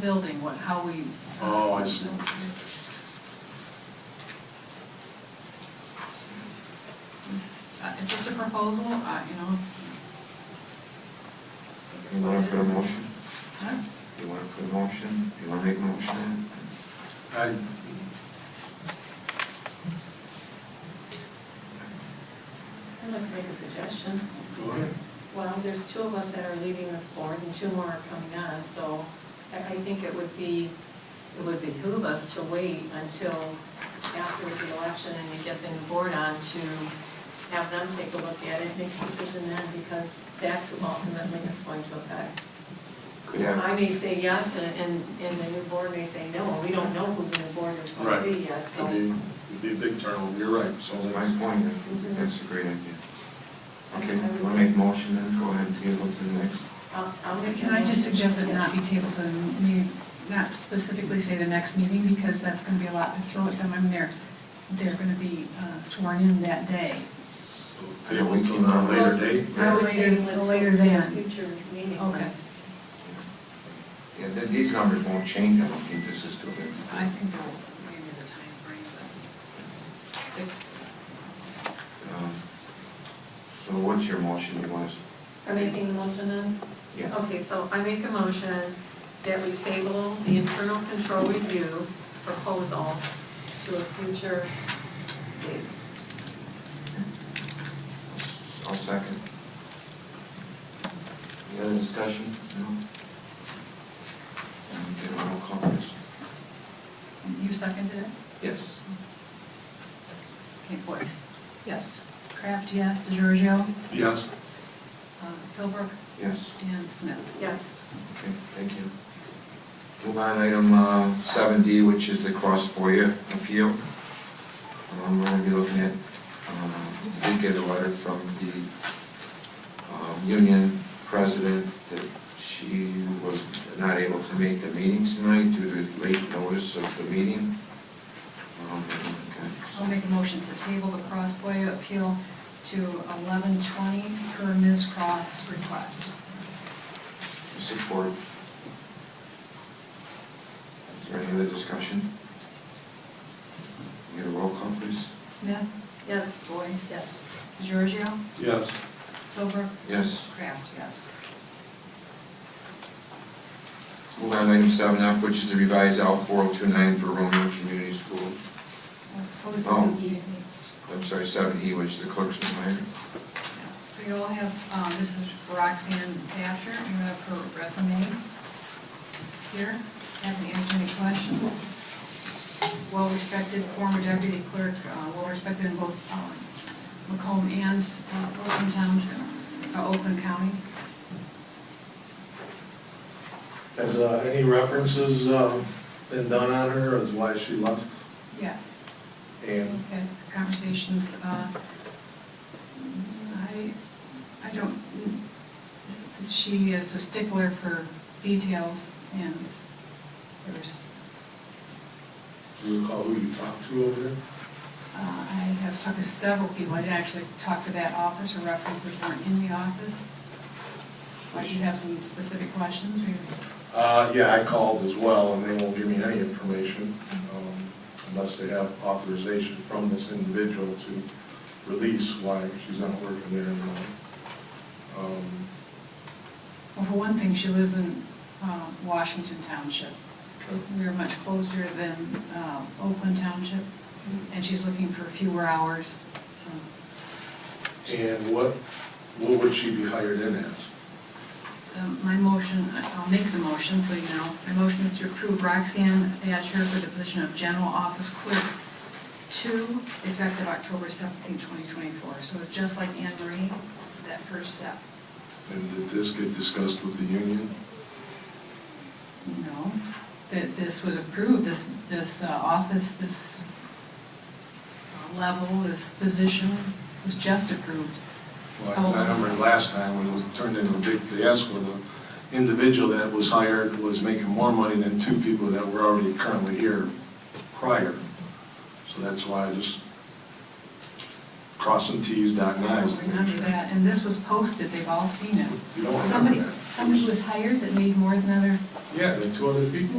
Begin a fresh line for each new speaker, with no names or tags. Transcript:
building, what, how we.
Oh, I see.
This is, uh, it's just a proposal, uh, you know.
You wanna put a motion?
Huh?
You wanna put a motion? You wanna make a motion?
I,
I'd like to make a suggestion.
Go ahead.
Well, there's two of us that are leaving this board and two more are coming on, so I I think it would be, it would behoove us to wait until after the election and you get the new board on to have them take a look at it, make a decision then, because that's who ultimately it's going to affect.
Could have.
I may say yes, and, and and the new board may say no, we don't know who the new board is going
right,
to be yet, so.
it'd be, it'd be a big turnover, you're right, so
That's my
that's,
point, I think that's a great idea. Okay, you wanna make a motion then, go ahead and table to the next?
I'll- I'll make
Can
a
I just
motion.
suggest that not be tabled to, the meeting- not specifically say the next meeting, because that's gonna be a lot to throw at them, I mean, they're, they're gonna be uh, sworn in that day.
table until a later date.
I would table it
Later-
till
later
a
then.
future meeting.
Okay.
Yeah, th- these numbers won't change, I don't think this is too big.
I think they'll, maybe the timeframe, but six,
Um, So what's your motion, you want us?
Are making a motion then?
Yeah.
Okay, so I make a motion that we table the internal control review proposal to a future date.
I'll second. Any other discussion? No? And get a roll call, please.
you seconded it?
Yes.
Okay, Boyce? Yes. Kraft, yes, DeGiorgio,
Yes,
uh, Philbrook,
Yes.
and Smith.
Yes.
Okay, thank you. Move on, item uh, seven D, which is the cross FOIA appeal. Um, We're gonna be looking at, um, we did get a letter from the um, union president that she was not able to make the meetings tonight due to late notice of the meeting. Um, okay, so-
I'll make a motion to table the Crossway appeal to eleven twenty per Ms. Cross request.
Support. Is there any other discussion? Can we Get a roll call, please.
Smith?
Yes.
Boyce?
Yes.
DeGiorgio?
yes,
Philbrook?
Yes.
Kraft, yes.
Let's Move on to item seven F, which is the revised L four oh two nine for Romeo Community School. Oh. I'm sorry, seven E, which is the clerk's reminder.
So you'll have, um, this is Roxanne Thatcher, you have her resume here, happy to answer any questions. Well-respected former deputy clerk, uh, well-respected in both um, Macomb and uh, Oakland Townships, uh, Oakland County.
Has uh, any references um, been done on her as why she left?
Yes.
And
Had conversations, uh, I, I don't, she is a stickler for details and there's,
do you recall who you talked to over there?
uh, I have talked to several people, I did actually talk to that office, her references weren't in the office. If you have some specific questions, we,
Uh, Yeah, I called as well, and they won't give me any information um, unless they have authorization from this individual to release why she's not working there anymore. Um,
well, for one thing, she lives in, uh, Washington Township.
okay.
We're much closer than, uh, Oakland Township, and she's looking for fewer hours, so.
And what, what would she be hired in as?
Um, My motion, I'll make the motion, so you know, my motion is to approve Roxanne Thatcher for the position of General Office Clerk two, effective October seventeenth, twenty twenty-four. So it's just like Anne Marie, that first step.
And did this get discussed with the union?
No, that this was approved, this, this uh, office, this uh, level, this position was just approved. Oh,
Well, I remember last time when it was turned into a big fiasco, the individual that was hired was making more money than two people that were already currently here prior. So that's why I just crossing Ts, dotting
I
Is.
don't remember that, and this was posted, they've all seen it.
You don't remember
Somebody,
that.
somebody was hired that made more than other
Yeah, the two other people.